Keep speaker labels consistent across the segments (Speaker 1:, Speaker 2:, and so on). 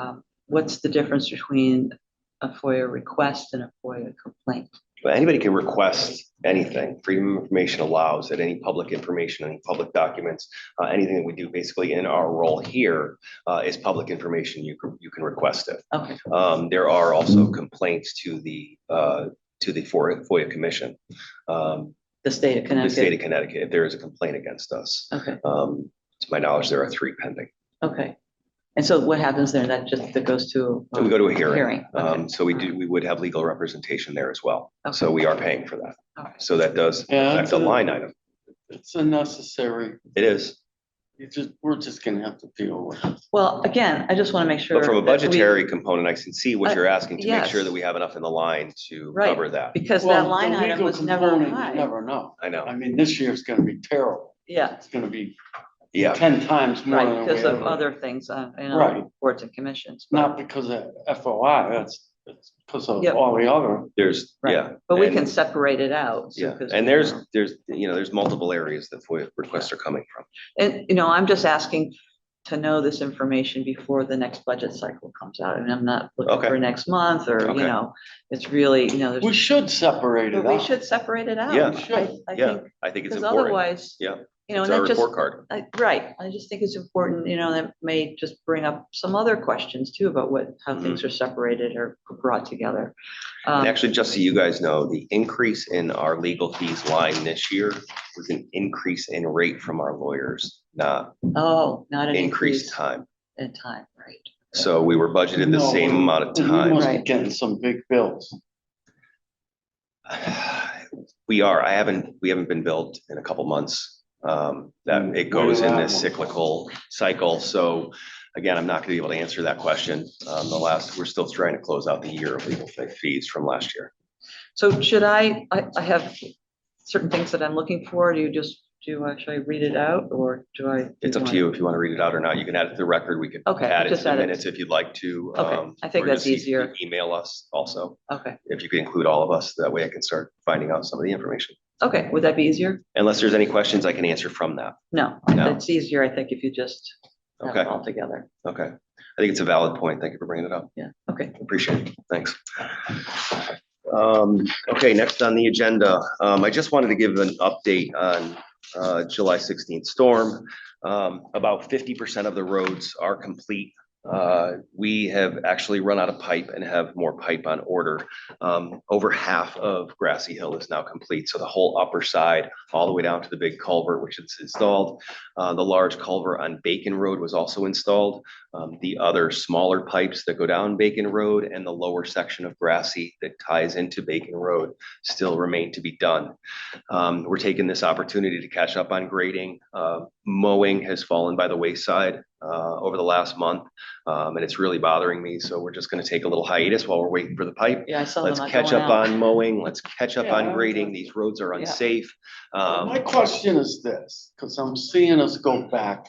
Speaker 1: um, what's the difference between a FOIA request and a FOIA complaint?
Speaker 2: But anybody can request anything. Freedom of Information allows that any public information, any public documents, uh, anything that we do basically in our role here uh, is public information. You can, you can request it.
Speaker 1: Okay,
Speaker 2: Um, there are also complaints to the, uh, to the FOIA, FOIA Commission. Um,
Speaker 1: the state of
Speaker 2: the state
Speaker 1: Connecticut.
Speaker 2: of Connecticut, if there is a complaint against us.
Speaker 1: Okay,
Speaker 2: Um, to my knowledge, there are three pending.
Speaker 1: okay. And so what happens there? That just, that goes to?
Speaker 2: So we go to a hearing.
Speaker 1: Hearing, okay.
Speaker 2: Um, so we do, we would have legal representation there as well. So
Speaker 1: Okay.
Speaker 2: we are paying for that.
Speaker 1: All right.
Speaker 2: So that does
Speaker 3: Yeah,
Speaker 2: affect
Speaker 3: it's
Speaker 2: the
Speaker 3: a-
Speaker 2: line item.
Speaker 3: It's unnecessary.
Speaker 2: It is.
Speaker 3: You just, we're just gonna have to deal with it.
Speaker 1: Well, again, I just want to make sure.
Speaker 2: But from a
Speaker 1: that we-
Speaker 2: budgetary component, I can see
Speaker 1: Uh,
Speaker 2: what you're asking to make sure
Speaker 1: yes.
Speaker 2: that we have enough in the line to
Speaker 1: Right.
Speaker 2: cover that.
Speaker 1: Because
Speaker 3: Well,
Speaker 1: that
Speaker 3: the
Speaker 1: line item
Speaker 3: legal
Speaker 1: was never
Speaker 3: component, you
Speaker 1: high.
Speaker 3: Never know.
Speaker 2: I
Speaker 3: I
Speaker 2: know.
Speaker 3: mean, this year's gonna be terrible.
Speaker 1: Yeah,
Speaker 3: It's gonna be
Speaker 2: Yeah,
Speaker 3: ten times more
Speaker 1: right,
Speaker 3: than we
Speaker 1: because of
Speaker 3: ever.
Speaker 1: other things, uh, you
Speaker 3: Right.
Speaker 1: know, boards and commissions. but-
Speaker 3: Not because of FOI, that's, it's because of
Speaker 1: Yep.
Speaker 3: all the other.
Speaker 2: there's,
Speaker 1: Right.
Speaker 2: yeah.
Speaker 1: But we
Speaker 2: and-
Speaker 1: can separate it out. so-
Speaker 2: Yeah,
Speaker 1: 'cause
Speaker 2: and
Speaker 1: we
Speaker 2: there's,
Speaker 1: know.
Speaker 2: there's, you know, there's multiple areas that FOIA requests are coming from.
Speaker 1: And, you know, I'm just asking to know this information before the next budget cycle comes out. And I'm not looking
Speaker 2: Okay.
Speaker 1: for next month or, you
Speaker 2: Okay.
Speaker 1: know, it's really, you know,
Speaker 3: We
Speaker 1: there's,
Speaker 3: should separate
Speaker 1: but
Speaker 3: it
Speaker 1: we
Speaker 3: out.
Speaker 1: should separate it out.
Speaker 2: Yeah.
Speaker 1: I-
Speaker 3: We should,
Speaker 1: I
Speaker 2: Yeah,
Speaker 1: think,
Speaker 2: I think it's
Speaker 1: because
Speaker 2: important.
Speaker 1: otherwise.
Speaker 2: Yeah.
Speaker 1: You know,
Speaker 2: It's
Speaker 1: and
Speaker 2: our
Speaker 1: that just,
Speaker 2: report card.
Speaker 1: I- right, I just think it's important, you know, that may just bring up some other questions too about what, how
Speaker 2: Mm-hmm.
Speaker 1: things are separated or brought together. Um,
Speaker 2: And actually, just so you guys know, the increase in our legal fees line this year was an increase in rate from our lawyers, not
Speaker 1: Oh, not an increase
Speaker 2: increased time.
Speaker 1: in time, right?
Speaker 2: So we were budgeted the
Speaker 3: No,
Speaker 2: same amount of
Speaker 3: We
Speaker 2: time.
Speaker 3: must be
Speaker 1: Right.
Speaker 3: getting some big bills.
Speaker 2: We are, I haven't, we haven't been billed in a couple months. Um,
Speaker 1: Mm.
Speaker 2: that it goes in this cyclical cycle, so again, I'm not gonna be able to answer that question. Um, the last, we're still trying to close out the year of legal fee- fees from last year.
Speaker 1: So should I, I, I have certain things that I'm looking for. Do you just, do I, should I read it out or do I?
Speaker 2: It's up to you if you wanna read it out or not. You can add it to the record. We could
Speaker 1: Okay,
Speaker 2: add it to
Speaker 1: just
Speaker 2: the
Speaker 1: add it.
Speaker 2: minutes if you'd like to.
Speaker 1: Okay,
Speaker 2: um,
Speaker 1: I think
Speaker 2: or
Speaker 1: that's
Speaker 2: just you can
Speaker 1: easier.
Speaker 2: Email us also,
Speaker 1: Okay,
Speaker 2: if you could include all of us, that way I can start finding out some of the information.
Speaker 1: okay. Would that be easier?
Speaker 2: Unless there's any questions I can answer from that.
Speaker 1: No,
Speaker 2: No.
Speaker 1: it's easier, I think, if you just have
Speaker 2: Okay,
Speaker 1: it all together.
Speaker 2: okay. I think it's a valid point. Thank you for bringing it up.
Speaker 1: Yeah, okay.
Speaker 2: Appreciate it. Thanks. Um, okay, next on the agenda, um, I just wanted to give an update on, uh, July sixteenth storm. Um, about fifty percent of the roads are complete. Uh, we have actually run out of pipe and have more pipe on order. Um, over half of Grassy Hill is now complete, so the whole upper side, all the way down to the big culvert, which is installed. Uh, the large culvert on Bacon Road was also installed. Um, the other smaller pipes that go down Bacon Road and the lower section of Grassy that ties into Bacon Road still remain to be done. Um, we're taking this opportunity to catch up on grading. Uh, mowing has fallen by the wayside, uh, over the last month. Um, and it's really bothering me, so we're just gonna take a little hiatus while we're waiting for the pipe.
Speaker 1: Yeah, I saw them.
Speaker 2: Let's
Speaker 1: not
Speaker 2: catch
Speaker 1: going
Speaker 2: up
Speaker 1: out.
Speaker 2: on mowing, let's catch up
Speaker 3: Yeah,
Speaker 2: on
Speaker 3: I'm
Speaker 2: grading.
Speaker 3: done.
Speaker 2: These roads are
Speaker 1: Yeah.
Speaker 2: unsafe.
Speaker 3: My
Speaker 2: Um,
Speaker 3: question is this, because I'm seeing us go back.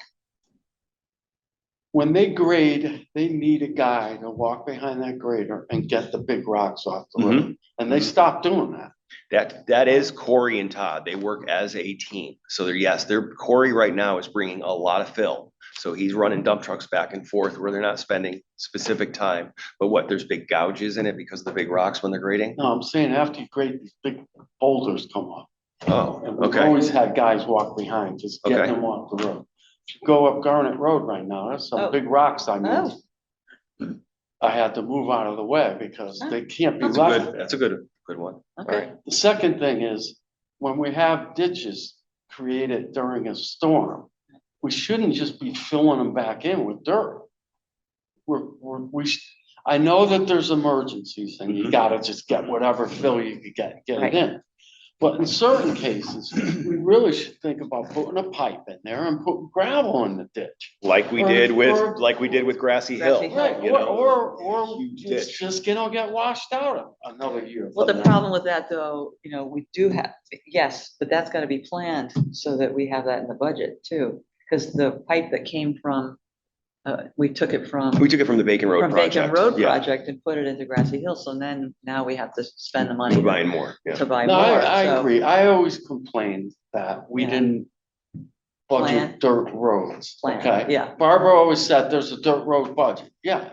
Speaker 3: When they grade, they need a guy to walk behind that grader and get the big rocks off the
Speaker 2: Mm-hmm.
Speaker 3: road. And they stopped doing that.
Speaker 2: That, that is Corey and Todd. They work as a team. So they're, yes, they're, Corey right now is bringing a lot of fill. So he's running dump trucks back and forth where they're not spending specific time. But what, there's big gouges in it because of the big rocks when they're grading?
Speaker 3: No, I'm saying after you grade, these big boulders come up.
Speaker 2: Oh,
Speaker 3: And we've
Speaker 2: okay.
Speaker 3: always had guys walk behind, just get
Speaker 2: Okay.
Speaker 3: them off the road. If you Go up Garnet Road right now, there's
Speaker 1: Oh.
Speaker 3: some big rocks I
Speaker 1: Oh.
Speaker 3: missed. I had to move out of the way because
Speaker 1: Ah,
Speaker 3: they can't be
Speaker 2: That's a
Speaker 3: left
Speaker 2: good, that's a good, good one.
Speaker 1: Okay,
Speaker 3: The second thing is, when we have ditches created during a storm, we shouldn't just be filling them back in with dirt. We're, we're, we, sh- I know that there's emergencies and you
Speaker 2: Mhm.
Speaker 3: gotta just get whatever fill you could get, get
Speaker 1: Mm-hmm. Right.
Speaker 3: it in. But in certain cases, we really should think about putting a pipe in there and putting gravel in the ditch.
Speaker 2: Like we
Speaker 3: Or-
Speaker 2: did
Speaker 3: or-
Speaker 2: with, like we did with Grassy
Speaker 1: Grassy
Speaker 2: Hill.
Speaker 1: Hill. Right,
Speaker 3: Right,
Speaker 2: you
Speaker 3: or,
Speaker 2: know,
Speaker 3: or, or
Speaker 2: huge
Speaker 3: it's
Speaker 2: ditch.
Speaker 3: just gonna get washed out another year.
Speaker 1: well,
Speaker 3: from
Speaker 1: the
Speaker 3: now.
Speaker 1: problem with that though, you know, we do have, yes, but that's gotta be planned so that we have that in the budget too. Cause the pipe that came from, uh, we took it from.
Speaker 2: We took it from the Bacon Road
Speaker 1: From Bacon
Speaker 2: project.
Speaker 1: Road
Speaker 2: Yeah,
Speaker 1: project and put it into Grassy Hill, so then now we have to spend the money
Speaker 2: We're buying more, yeah.
Speaker 1: to buy
Speaker 3: No, I,
Speaker 1: more,
Speaker 3: I
Speaker 1: so.
Speaker 3: agree. I always complained that we
Speaker 1: Yeah.
Speaker 3: didn't budget dirt roads,
Speaker 1: Plan,
Speaker 3: okay?
Speaker 1: yeah.
Speaker 3: Barbara always said there's a dirt road budget. Yeah,